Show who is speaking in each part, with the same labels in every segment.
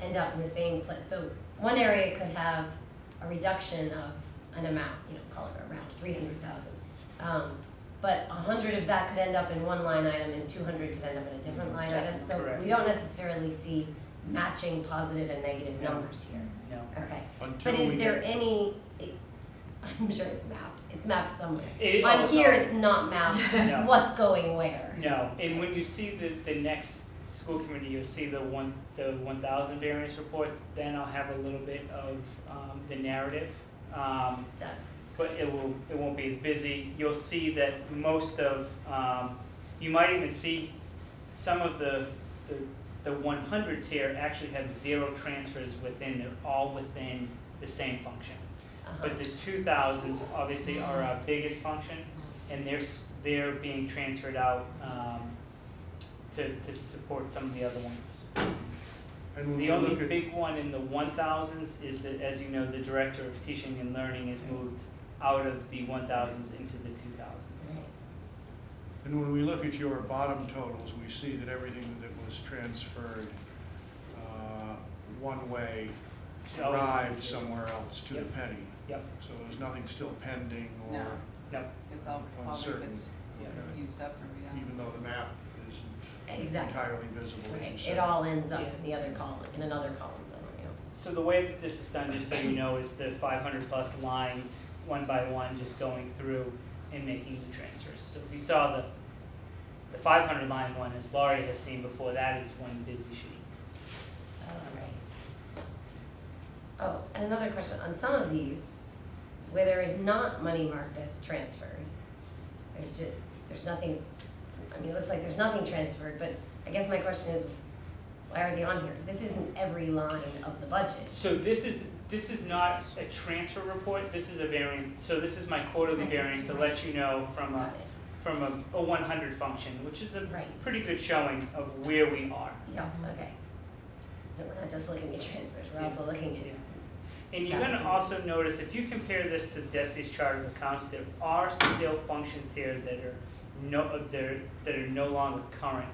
Speaker 1: end up in the same place. So one area could have a reduction of an amount, you know, call it around three hundred thousand. Um, but a hundred of that could end up in one line item and two hundred could end up in a different line item. So
Speaker 2: Correct.
Speaker 1: we don't necessarily see matching positive and negative
Speaker 2: No.
Speaker 1: numbers here.
Speaker 2: No.
Speaker 1: Okay,
Speaker 3: Until
Speaker 1: but is
Speaker 3: we
Speaker 1: there
Speaker 3: get-
Speaker 1: any, I'm sure it's mapped, it's mapped somewhere.
Speaker 2: It- oh,
Speaker 1: On here,
Speaker 2: sorry.
Speaker 1: it's not mapped,
Speaker 2: No.
Speaker 1: what's going where.
Speaker 2: No, and when you see the, the next school committee, you'll see the one, the one thousand variance reports, then I'll have a little bit of, um, the narrative. Um,
Speaker 1: That's,
Speaker 2: but it will, it won't be as busy, you'll see that most of, um, you might even see some of the, the, the one hundreds here actually have zero transfers within, they're all within the same function.
Speaker 1: uh-huh,
Speaker 2: But the two thousands obviously are our biggest function, and they're, s- they're being transferred out, um, to, to support some of the other ones.
Speaker 3: And when
Speaker 2: The
Speaker 3: we
Speaker 2: only
Speaker 3: look at,
Speaker 2: big one in the one thousands is that, as you know, the director of teaching and learning is moved out of the one thousands into the two thousands.
Speaker 1: right.
Speaker 3: and when we look at your bottom totals, we see that everything that was transferred, uh, one way
Speaker 2: Should always be
Speaker 3: arrived
Speaker 2: zero.
Speaker 3: somewhere else to the
Speaker 2: Yep.
Speaker 3: penny.
Speaker 2: Yep.
Speaker 3: So there's nothing still pending or
Speaker 4: No. It's all probably
Speaker 3: uncertain,
Speaker 4: just used up or we don't.
Speaker 3: even though the map isn't
Speaker 1: Exactly,
Speaker 3: entirely visible, as you
Speaker 1: right,
Speaker 3: said.
Speaker 1: it all ends up
Speaker 2: Yeah.
Speaker 1: in the other column, in another column somewhere,
Speaker 2: So the way that this is done, just so you know, is the five hundred plus lines, one by one, just going through and making the transfers. So if you saw the, the five hundred line one, as Laurie has seen before, that is one busy sheet.
Speaker 1: Oh, right. Oh, and another question, on some of these, where there is not money marked as transferred, there's ju- there's nothing, I mean, it looks like there's nothing transferred, but I guess my question is, why are they on here? 'Cause this isn't every line of the budget.
Speaker 2: So this is, this is not a transfer report, this is a variance, so this is my quarterly
Speaker 1: Right.
Speaker 2: variance to let you know from a,
Speaker 1: Got it,
Speaker 2: from a, a one hundred function, which is a
Speaker 1: right,
Speaker 2: pretty good showing of where we are.
Speaker 1: yeah, okay. So we're not just looking at transfers, we're
Speaker 2: Yeah.
Speaker 1: also looking at
Speaker 2: Yeah. And you're gonna also notice, if you compare this to Desi's chart of accounts, there are still functions here that are no, they're, that are no longer current.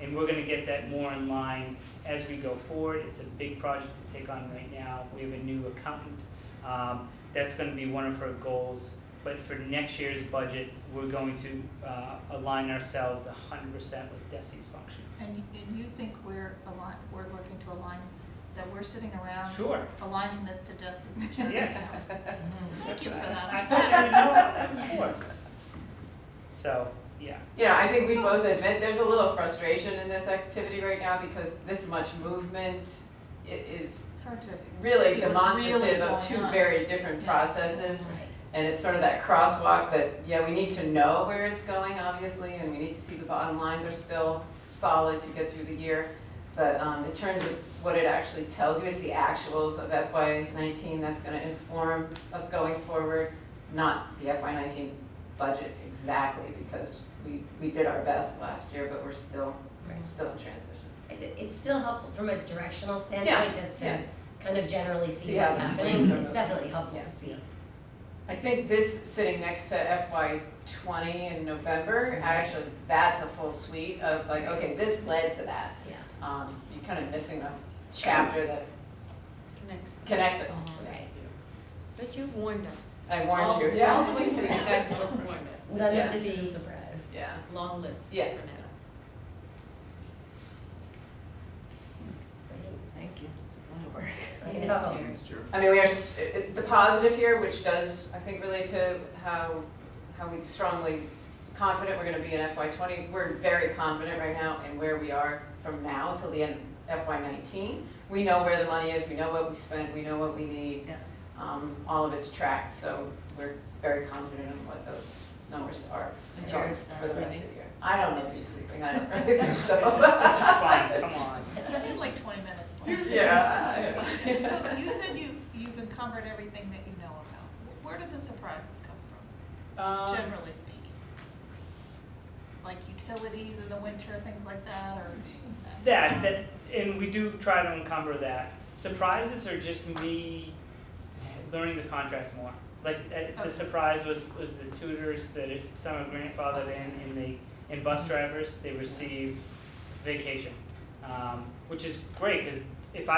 Speaker 2: And we're gonna get that more in line as we go forward, it's a big project to take on right now, we have a new accountant. Um, that's gonna be one of her goals, but for next year's budget, we're going to, uh, align ourselves hundred percent with Desi's functions.
Speaker 5: And you, and you think we're align, we're looking to align, that we're sitting around
Speaker 2: Sure,
Speaker 5: aligning this to Desi's chart?
Speaker 2: Yes.
Speaker 5: Thank you for
Speaker 2: I
Speaker 5: that.
Speaker 2: thought you would know about that, of course. So, yeah.
Speaker 4: Yeah, I think we
Speaker 5: So-
Speaker 4: both admit there's a little frustration in this activity right now because this much movement i- is
Speaker 5: It's hard to,
Speaker 4: really
Speaker 5: See what's really
Speaker 4: demonstrative of
Speaker 5: going
Speaker 4: two
Speaker 5: on.
Speaker 4: very different
Speaker 5: Yeah.
Speaker 4: processes.
Speaker 1: Right.
Speaker 4: And it's sort of that crosswalk that, yeah, we need to know where it's going, obviously, and we need to see the bottom lines are still solid to get through the year. But um, in terms of what it actually tells you, it's the actuals of FY nineteen that's gonna inform us going forward, not the FY nineteen budget exactly, because we, we did our best last year, but we're still,
Speaker 1: Right.
Speaker 4: still in transition.
Speaker 1: It's, it's still helpful from a directional standpoint, just to
Speaker 4: yeah.
Speaker 1: kind of generally see
Speaker 4: See how
Speaker 1: what's
Speaker 4: the
Speaker 1: happening,
Speaker 4: swings are
Speaker 1: it's definitely helpful
Speaker 4: Yeah.
Speaker 1: to see.
Speaker 4: I think this, sitting next to FY twenty in November, actually, that's a full suite of like, okay, this led to that.
Speaker 1: Yeah.
Speaker 4: um, you're kind of missing a chapter that
Speaker 6: Next.
Speaker 4: connects it.
Speaker 1: Right,
Speaker 6: But you've warned us.
Speaker 4: I warned you.
Speaker 6: Uh-huh. All all the way through, you guys both warned us.
Speaker 1: none
Speaker 4: Yeah.
Speaker 1: of this is a surprise.
Speaker 4: Yeah.
Speaker 6: Long list for now.
Speaker 4: Yeah.
Speaker 6: Thank you. It's a lot of work.
Speaker 1: Right.
Speaker 4: Yeah.
Speaker 1: Next year.
Speaker 4: I mean, we are, s- it- it- the positive here, which does, I think, relate to how, how we strongly confident we're gonna be in FY twenty. We're very confident right now in where we are from now till the end of FY nineteen. We know where the money is, we know what we spent, we know what we need.
Speaker 6: Yeah.
Speaker 4: Um, all of it's tracked, so we're very confident in what those numbers are
Speaker 6: And
Speaker 4: going
Speaker 6: Jared's
Speaker 4: for the rest of
Speaker 6: sleeping.
Speaker 4: the year. I don't know if he's sleeping, I don't really think so.
Speaker 2: This is, this is fine, come on.
Speaker 5: you had like twenty minutes left.
Speaker 4: Yeah.
Speaker 5: So you said you, you've uncovered everything that you know about. Where do the surprises come from,
Speaker 2: Um,
Speaker 5: generally speaking? Like utilities in the winter, things like that, or?
Speaker 2: that, that, and we do try to encumber that. Surprises are just me learning the contract more. Like, uh, the
Speaker 5: Okay.
Speaker 2: surprise was, was the tutors that is- some are grandfathered in, and they,
Speaker 5: Mm-hmm.
Speaker 2: and bus drivers, they receive vacation. Um, which is great, cause